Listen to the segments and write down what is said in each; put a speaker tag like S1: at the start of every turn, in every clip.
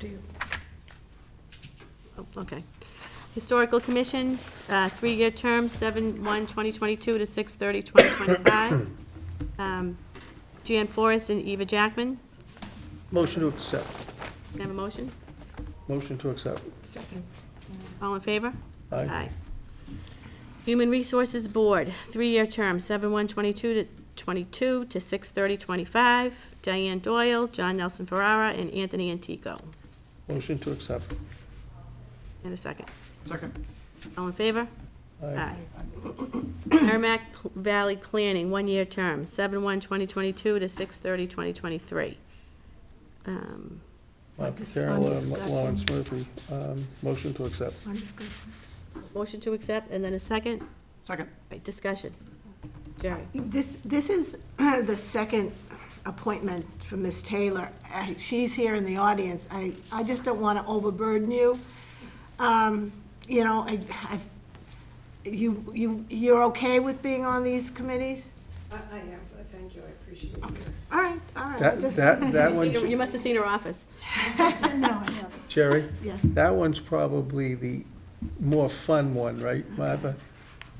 S1: to you.
S2: Oh, Okay. Historical Commission, uh, three-year term, seven, one, twenty twenty-two to six thirty, twenty twenty-five. Um, Jan Forrest and Eva Jackman,
S3: Motion to accept.
S2: Can I have a motion?
S3: Motion to accept.
S1: Second.
S2: All in favor?
S3: Aye.
S2: Human Resources Board, three-year term, seven, one, twenty-two to twenty-two to six thirty, twenty-five. Diane Doyle, John Nelson Ferrara, and Anthony Antico.
S3: Motion to accept.
S2: And a second.
S4: Second.
S2: All in favor?
S3: Aye.
S2: Aye. Merrimack P- Valley Planning, one-year term, seven one 2022 to six thirty 2023 Um,
S3: Michael
S1: Discussion.
S3: Carroll, and Lawrence Murphy. Um, Motion to accept.
S1: On discussion.
S2: Motion to accept, and then a second,
S4: Second.
S2: Right, discussion. Jerry?
S1: This, this is the second appointment for Ms. Taylor. I- She's here in the audience. I, I just don't want to overburden you. Um, You know, I, I, you, you, you're okay with being on these committees?
S5: I, I am, but thank you, I appreciate your
S1: All right, all right.
S3: That,
S1: just-
S3: that, that
S2: You
S3: one,
S2: seen her- You must have seen her office.
S1: No, I haven't.
S3: Jerry,
S1: Yeah.
S3: that one's probably the more fun one, right, Martha?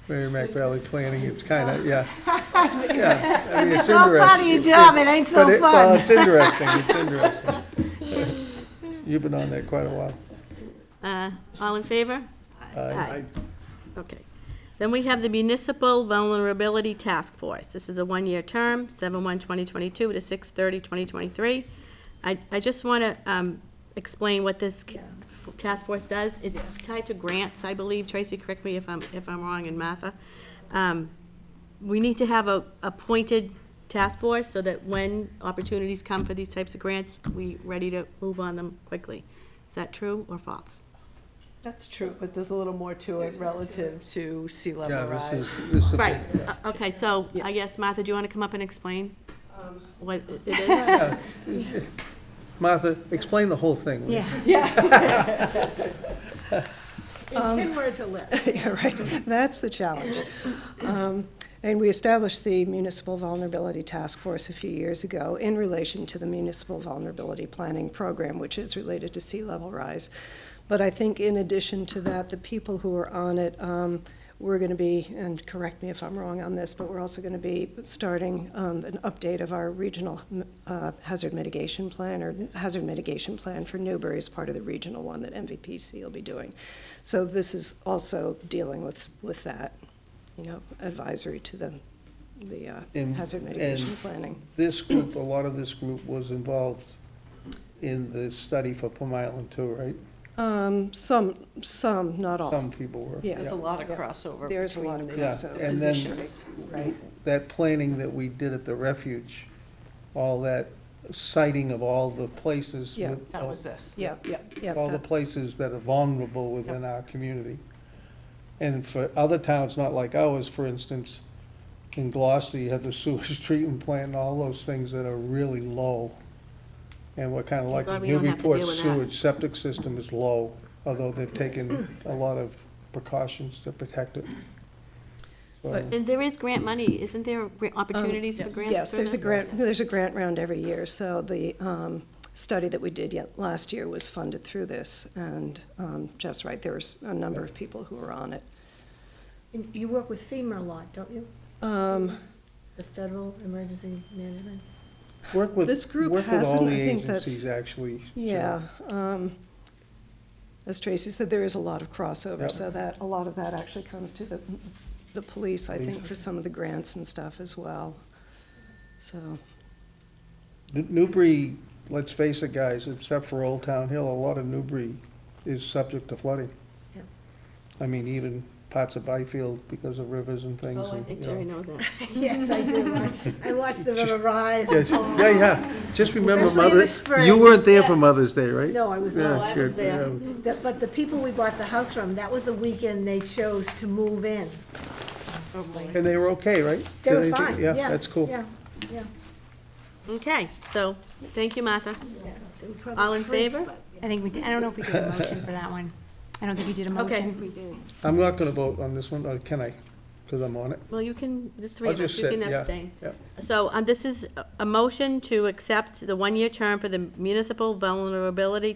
S3: Merrimack Valley Planning, it's kind of, yeah. Yeah. I mean, It's
S1: So proud of
S3: interesting.
S1: your job, it ain't so
S3: But it- uh, Well,
S1: fun.
S3: it's interesting, it's interesting. You've been on there quite a while.
S2: Uh, All in favor?
S3: Aye.
S2: Okay. Then we have the Municipal Vulnerability Task Force. This is a one-year term, 7/1/2022 to 6/30/2023. I, I just want to explain what this c- f- task force does. It's tied to grants, I believe. Tracy, correct me if I'm, if I'm wrong, and Martha. Um, We need to have a appointed task force so that when opportunities come for these types of grants, we ready to move on them quickly. Is that true or false?
S6: That's true, but there's a little more to it relative to sea
S3: Yeah,
S6: level
S3: this
S6: rise.
S3: is, this is. a
S2: Right,
S3: big-
S2: Uh, okay, so I guess, Martha, do you want to come up and explain
S5: Um,
S2: what it is?
S3: yeah. Martha, explain the whole thing. will you?
S1: In ten words or less.
S7: Yeah, right. That's the challenge. Um, And we established the Municipal Vulnerability Task Force a few years ago in relation to the Municipal Vulnerability Planning Program, which is related to sea level rise. But I think in addition to that, the people who are on it, um, we're going to be, and correct me if I'm wrong on this, but we're also going to be starting um, an update of our regional uh, hazard mitigation plan, or hazard mitigation plan for Newbury is part of the regional one that MVPC will be doing. So this is also dealing with, with that, you know, advisory to the, the uh,
S3: And-
S7: hazard mitigation
S3: and-
S7: planning.
S3: This group, a lot of this group was involved in the study for Plum Island too, right?
S7: Um, Some, some, not all.
S3: Some people were.
S7: Yeah.
S6: There's a lot of crossover
S7: There's a lot of
S6: between the
S7: crossover.
S3: Yeah, and then-
S6: positions.
S7: Right.
S3: That planning that we did at the refuge, all that sighting of all the places
S7: Yeah.
S3: with.
S6: That was this.
S7: Yeah,
S6: Yeah.
S7: yeah.
S3: All the
S7: that-
S3: places that are vulnerable within our community. And for other towns, not like ours, for instance, in Gloucester, you have the sewage treatment plant and all those things that are really low. And we're kind of like,
S2: glad we don't have to deal
S3: Newburyport
S2: with that.
S3: sewage septic system is low, although they've taken a lot of precautions to protect it. So-
S7: But-
S2: And there is grant money, isn't there gra- opportunities for
S6: yes.
S2: grants?
S7: Um, Yes,
S2: for
S7: there's a
S2: this?
S7: grant, there's a grant round every year, so the um, study that we did yet, last year was funded through this, and um, Jeff's right, there was a number of people who were on it.
S1: You- You work with FEMA a lot, don't you?
S7: Um,
S1: The Federal Emergency Management?
S3: Work with,
S7: This group
S3: work with all
S7: hasn't,
S3: the
S7: I think that's-
S3: agencies, actually. to-
S7: Yeah, um, as Tracy said, there is a lot of
S3: Yeah.
S7: crossover, so that, a lot of that actually comes to the, the police, I think, for some of the grants and stuff as well, so.
S3: New- Newbury, let's face it, guys, except for Old Town Hill, a lot of Newbury is subject to flooding.
S1: Yeah.
S3: I mean, even parts of Byfield because of rivers and things.
S2: Oh, I
S3: and,
S2: think
S3: you
S2: Jerry
S3: know.
S2: knows that.
S1: Yes, I do. I- I watched the river rise.
S3: Yes, Yeah, yeah, just remember
S1: Especially in the
S3: Mother's,
S1: spring.
S3: you weren't there for Mother's Day, right?
S1: No, I was,
S3: Yeah,
S2: No, I
S3: good,
S2: was there.
S3: yeah.
S1: the- but the people we bought the house from, that was the weekend they chose to move in.
S3: And they were okay, right?
S1: They
S3: Did
S1: were
S3: anything-
S1: fine, yeah.
S3: Yeah, that's cool.
S1: Yeah, yeah.
S2: Okay, so, thank you, Martha.
S1: It was probably
S2: All in
S1: free,
S2: favor?
S1: but-
S8: I think we did, I don't know if we did a motion for that one. I don't think you did a
S2: Okay.
S8: motion.
S3: I'm not gonna vote on this one, or can I? Because I'm on it.
S2: Well, you can, there's three
S3: I'll
S2: of us,
S3: just
S2: you
S3: sit,
S2: can
S3: yeah,
S2: abstain.
S3: yeah.
S2: So uh, um, this is a- a motion to accept the one-year term for the Municipal Vulnerability